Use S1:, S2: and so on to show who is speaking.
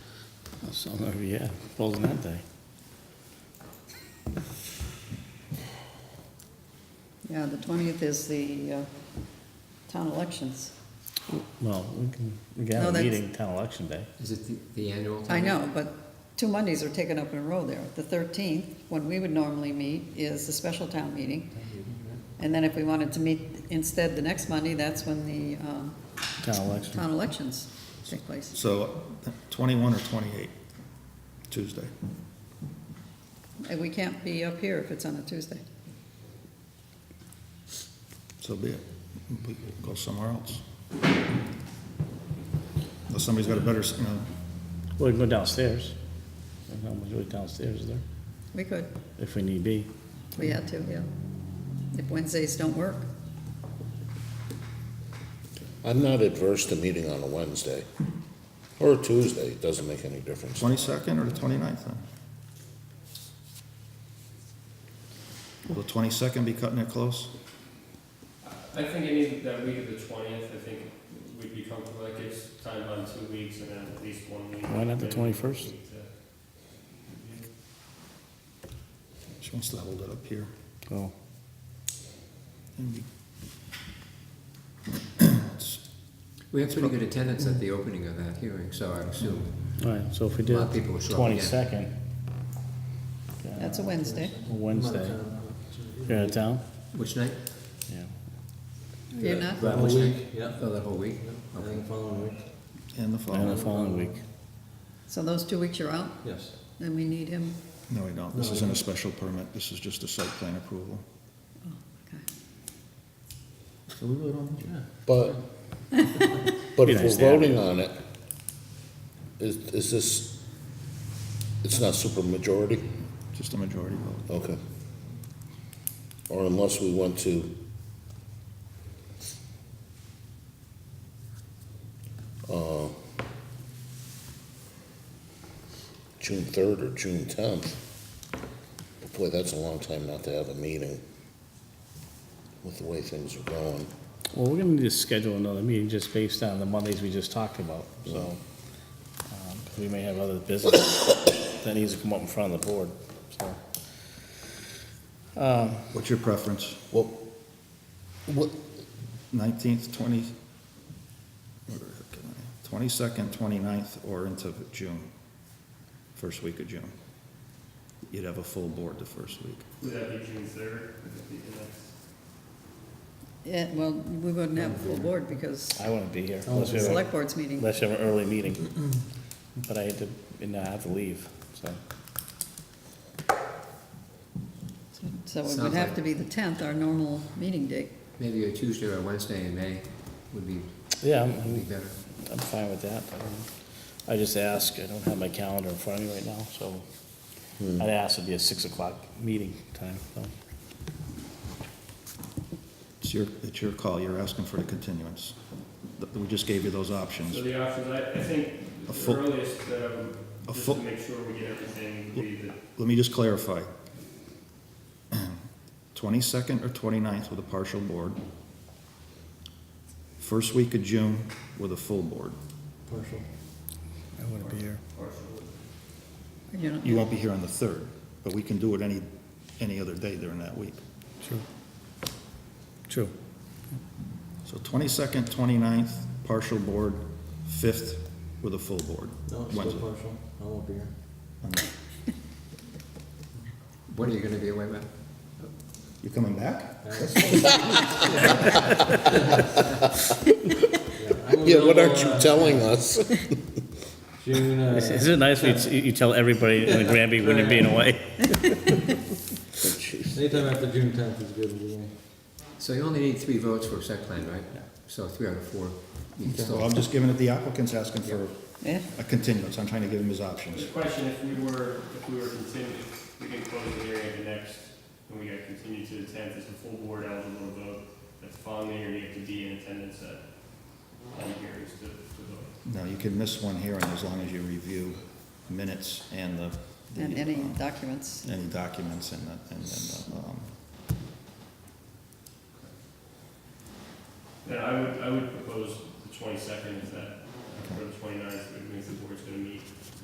S1: So, yeah, closing that day.
S2: Yeah, the 20th is the uh, town elections.
S1: Well, we can, we can
S2: No,
S1: have a
S2: that's-
S1: meeting town election day.
S3: Is it the- the annual? town
S2: I
S3: meeting?
S2: know, but two Mondays are taken up in a row there. The 13th, when we would normally meet, is the special town meeting. And then if we wanted to meet instead the next Monday, that's when the um,
S1: Town election.
S2: town elections take place.
S4: So twenty-one or twenty-eight, Tuesday.
S2: And we can't be up here if it's on a Tuesday.
S4: So be it. We can go somewhere else. Unless somebody's got a better, s- you know,
S1: Well, we can go downstairs. There's not much really downstairs is there,
S2: We could,
S1: if we need be.
S2: we had to, yeah. If Wednesdays don't work.
S5: I'm not adverse to meeting on a Wednesday or a Tuesday, it doesn't make any difference.
S4: twenty-second or the 29th then? Will the twenty-second be cutting it close?
S6: I think any, that week of the twentieth, I think we'd be comfortable, that gives time on two weeks and then at least one week.
S1: Why not the
S6: maybe
S1: 21st?
S6: week to-
S4: She wants to hold it up here.
S1: Oh,
S4: and be- It's-
S3: We had pretty good attendance at the opening of that hearing, so I assume.
S1: all right, so if we did
S3: lot of people will show up again.
S1: twenty-second. uh,
S2: That's a Wednesday.
S1: Wednesday. You're out of town?
S3: Which night?
S1: Yeah.
S2: You're not?
S3: That
S7: whole week,
S3: Yeah. Oh, that whole week?
S7: And then the following week,
S4: And the
S1: And the
S4: following.
S1: following week.
S2: So those two weeks you're out,
S7: yes.
S2: then we need him.
S4: No, we don't. This isn't a special permit. This is just a site plan approval.
S2: Oh, okay.
S4: So we really don't.
S5: But, but
S1: Be
S5: if
S1: nice to
S5: we're
S1: have
S5: voting on it, is, is this, it's not super majority?
S4: Just a majority vote.
S5: Okay. Or unless we want to uh, June third or June tenth. Boy, that's a long time not to have a meeting with the way things are going.
S1: Well, we're gonna need to schedule another meeting just based on the Mondays we just talked about, so. um, 'cause We may have other business that needs to come up in front of the board, so. Um,
S4: What's your preference?
S5: Well, what,
S4: Nineteenth, twenty, twenty-second, twenty-ninth, or into June, first week of June. You'd have a full board the first week.
S6: Would that be June third? Would that be the next?
S2: Yeah, Eh, well, we wouldn't have a full board because
S1: I wouldn't be here unless
S2: the
S1: we have,
S2: select
S1: a-
S2: board's meeting.
S1: unless you have an early meeting. But I had to, and I have to leave, so.
S2: So it would
S3: Sounds
S2: have
S3: like-
S2: to be the 10th, our normal meeting date.
S3: Maybe a Tuesday or a Wednesday in May would be,
S1: Yeah, I'm,
S3: would be
S1: I'm-
S3: better.
S1: I'm fine with that. Um, I just ask, I don't have my calendar in front of me right now, so I'd ask it'd be a six o'clock meeting time, so.
S4: It's your, it's your call. You're asking for the continuance. Th- We just gave you those
S6: So
S4: options.
S6: the options, I, I think
S4: A
S6: the
S4: full-
S6: earliest, um,
S4: a
S6: just
S4: full-
S6: to make sure we get everything, would be the
S4: Let me just clarify. Twenty-second or 29th with a partial board. First week of June with a full board.
S7: Partial.
S4: I wouldn't be here.
S6: partial.
S2: You know,
S4: You won't be here on the 3rd, but we can do it any, any other day during that week.
S1: True. True.
S4: So 22nd, 29th, partial board, 5th with a full board.
S7: No, it's still
S4: Wednesday.
S7: partial. I won't be here.
S3: What are you gonna be away with?
S4: You coming back?
S5: yeah, what aren't you telling us?
S7: June, uh,
S1: Is it nice when you, you tell everybody in Granby when you're being away?
S7: anytime after June tenth is good with me.
S3: So you only need three votes for a site plan, right? So three out of four. You can
S4: Well, I'm
S3: still,
S4: just giving it, the applicant's asking for
S2: Yeah,
S4: a continuance, I'm trying to give him his
S6: The
S4: options.
S6: question, if we were, if we were continued, we can close the hearing at the next, and we got continued to the tenth, it's a full board eligible to vote. That's following the year, you have to be in attendance at all hearings to, to vote.
S4: Now, you can miss one hearing as long as you review minutes and the. the,
S2: and any
S4: um,
S2: documents.
S4: Any documents and the, and then, um,
S6: Then I would, I would propose the twenty-second, is that, or the 29th, which means the board's gonna meet